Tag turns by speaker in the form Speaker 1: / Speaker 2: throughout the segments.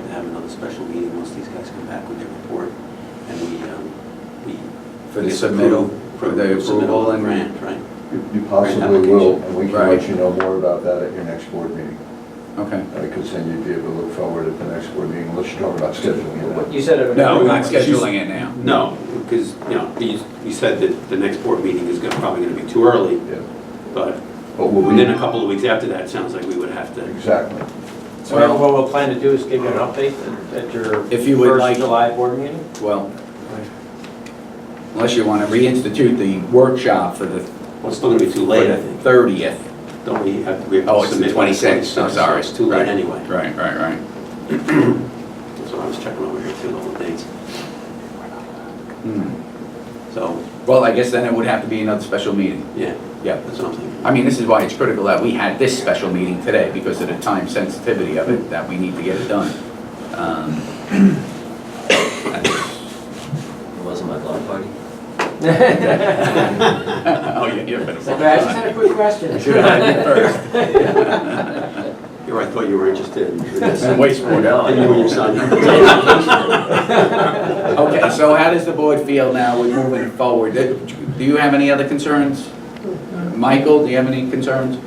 Speaker 1: a special meeting once these guys come back with their report, and we, um, we.
Speaker 2: For the submittal, for the
Speaker 1: submittal of
Speaker 2: approval and-
Speaker 1: Grant, right.
Speaker 3: You you possibly will, and we can
Speaker 2: Right.
Speaker 3: let you know more about that at your next board meeting.
Speaker 2: Okay.
Speaker 3: Because then you'd be able to look forward at the next board meeting, unless you're talking about scheduling
Speaker 4: You
Speaker 3: it.
Speaker 4: said it.
Speaker 2: No, I'm not scheduling it now.
Speaker 1: No, because, you know, you, you said that the next board meeting is gonna, probably gonna be too early,
Speaker 3: Yeah.
Speaker 1: but
Speaker 3: But we'll
Speaker 1: within a
Speaker 3: be,
Speaker 1: couple of weeks after that, it sounds like we would have to.
Speaker 3: exactly.
Speaker 4: So what- what we'll plan to do is give you an update at- at your.
Speaker 2: If you would like-
Speaker 4: First July board meeting?
Speaker 2: Well, unless you want to reinstitute the workshop for the
Speaker 1: Well, it's still gonna be too
Speaker 2: for
Speaker 1: late, I
Speaker 2: the
Speaker 1: think.
Speaker 2: 30th.
Speaker 1: Don't we have, we have
Speaker 2: Oh,
Speaker 1: to
Speaker 2: it's the
Speaker 1: submit. by
Speaker 2: 26th, I'm
Speaker 1: 26th,
Speaker 2: sorry.
Speaker 1: It's too late
Speaker 2: Right.
Speaker 1: anyway.
Speaker 2: Right, right, right.
Speaker 1: That's what I was checking over here too, all the dates.
Speaker 2: Hmm.
Speaker 1: So,
Speaker 2: Well, I guess then it would have to be another special meeting.
Speaker 1: yeah,
Speaker 2: Yeah.
Speaker 1: that's what I'm thinking.
Speaker 2: I mean, this is why it's critical that we had this special meeting today because of the time sensitivity of it, that we need to get it done. Um,
Speaker 5: It wasn't my block party.
Speaker 2: Oh, yeah, you're better.
Speaker 4: Okay, I just had a quick question.
Speaker 2: Should I be first?
Speaker 1: Here, I thought you were interested in this.
Speaker 2: And waste more.
Speaker 1: And you and your son.
Speaker 2: Okay, so how does the board feel now with moving forward? Do you have any other concerns? Michael, do you have any concerns?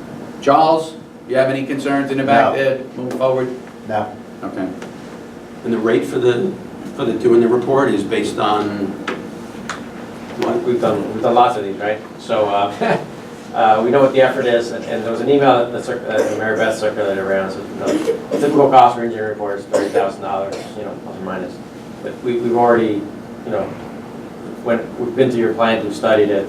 Speaker 2: Charles, you have any concerns in the
Speaker 6: No.
Speaker 2: back there, moving forward?
Speaker 6: No,
Speaker 2: Okay,
Speaker 1: And the rate for the, for the doing the report is based on what?
Speaker 4: We've done, we've done lots of these, right? So, uh, uh, we know what the effort is, and- and there was an email that the cir- that Mary Beth circulated around, so, you know, typical cost for engineering reports, thirty thousand dollars, you know, plus or minus. But we, we've already, you know, when, we've been to your plant, we've studied it,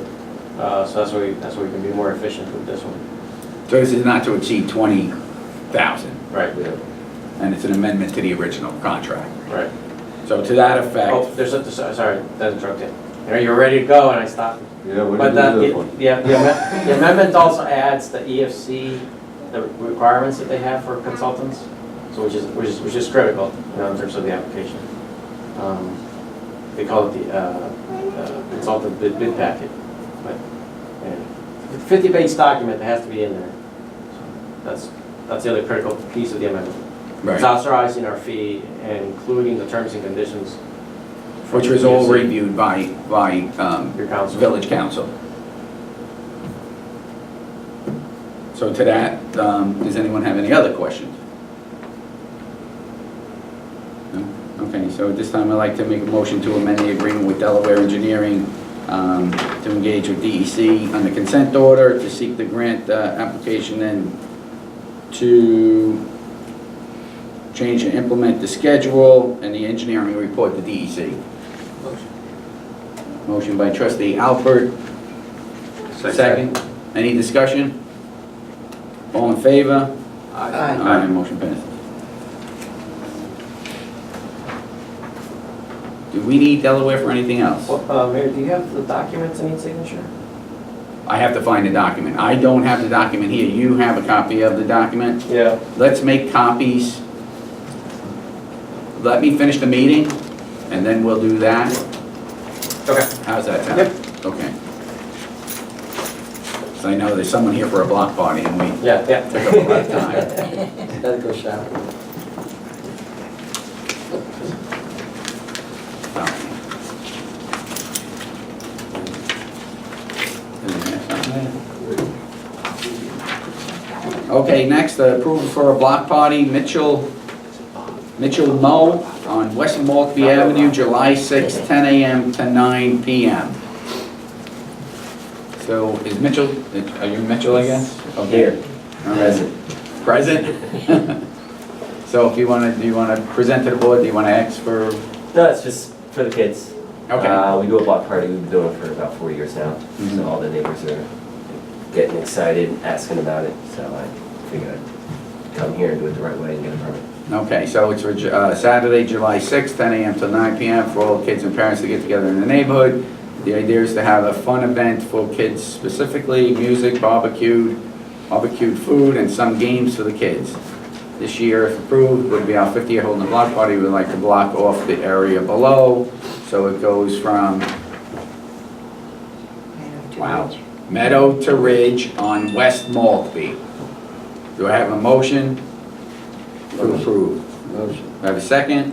Speaker 4: uh, so that's why, we- that's why we can be more efficient with this one.
Speaker 2: so this is not to exceed 20,000,
Speaker 4: Right,
Speaker 2: and it's an amendment to the original contract.
Speaker 4: right.
Speaker 2: So to that
Speaker 4: Oh,
Speaker 2: effect,
Speaker 4: there's a, so- sorry, that interrupted. You know, you're ready to go, and I stopped.
Speaker 3: Yeah, what
Speaker 4: But the, yeah, the amendment, the amendment also adds the EFC, the requirements that they have for consultants, so which is, which is, which is critical, you know, in terms of the application. Um, They call it the, uh, uh, consultant bid, bid packet, but, yeah, fifty-page document that has to be in there. So That's, that's the other critical piece of the amendment. It's
Speaker 2: right,
Speaker 4: authorizing our fee, including the terms and conditions. for
Speaker 2: which was all
Speaker 4: the-
Speaker 2: reviewed by, by um,
Speaker 4: Your council.
Speaker 2: village council. So to that, um, does anyone have any other questions? No? Okay, so at this time, I'd like to make a motion to amend the agreement with Delaware Engineering um, to engage with DEC on the consent order to seek the grant uh, application and to change and implement the schedule and the engineering report to DEC. Motion by trustee Alpert, second. Any discussion? All in favor? Aye, motion passes. Do we need Delaware for anything else?
Speaker 4: Well, uh, Mayor, do you have the documents that need signature?
Speaker 2: I have to find a document. I don't have the document here. You have a copy of the document.
Speaker 4: Yeah.
Speaker 2: Let's make copies. Let me finish the meeting, and then we'll do that.
Speaker 4: Okay.
Speaker 2: How's that sound? Okay. So I know there's someone here for a block party, and we
Speaker 4: Yeah, yeah.
Speaker 2: took up a lot of time.
Speaker 5: Gotta go shower.
Speaker 2: So. Okay, next, uh, approval for a block party, Mitchell, Mitchell Mo on West Maltby Avenue, July 6, 10 a.m. to 9 p.m. So is Mitchell, are you Mitchell, I guess? Oh, here. All right. Present? So if you want to, do you want to present to the board, do you want to ask for
Speaker 5: No, it's just for the kids.
Speaker 2: Okay,
Speaker 5: Uh, we do a block party, we've been doing it for about four years now,
Speaker 2: Mhm.
Speaker 5: so all the neighbors are getting excited, asking about it, so I figured I'd come here and do it the right way and get a permit.
Speaker 2: okay, so it's for Ju- uh, Saturday, July 6th, 10 AM to 9 PM for all the kids and parents to get together in the neighborhood. The idea is to have a fun event for kids specifically, music, barbecued, barbecued food, and some games for the kids. This year, if approved, would be our 50-year holding the block party. We'd like to block off the area below, so it goes from Wow. Meadow to Ridge on West Maltby. Do I have a motion? to approve?
Speaker 3: Motion.
Speaker 2: Do I have a second?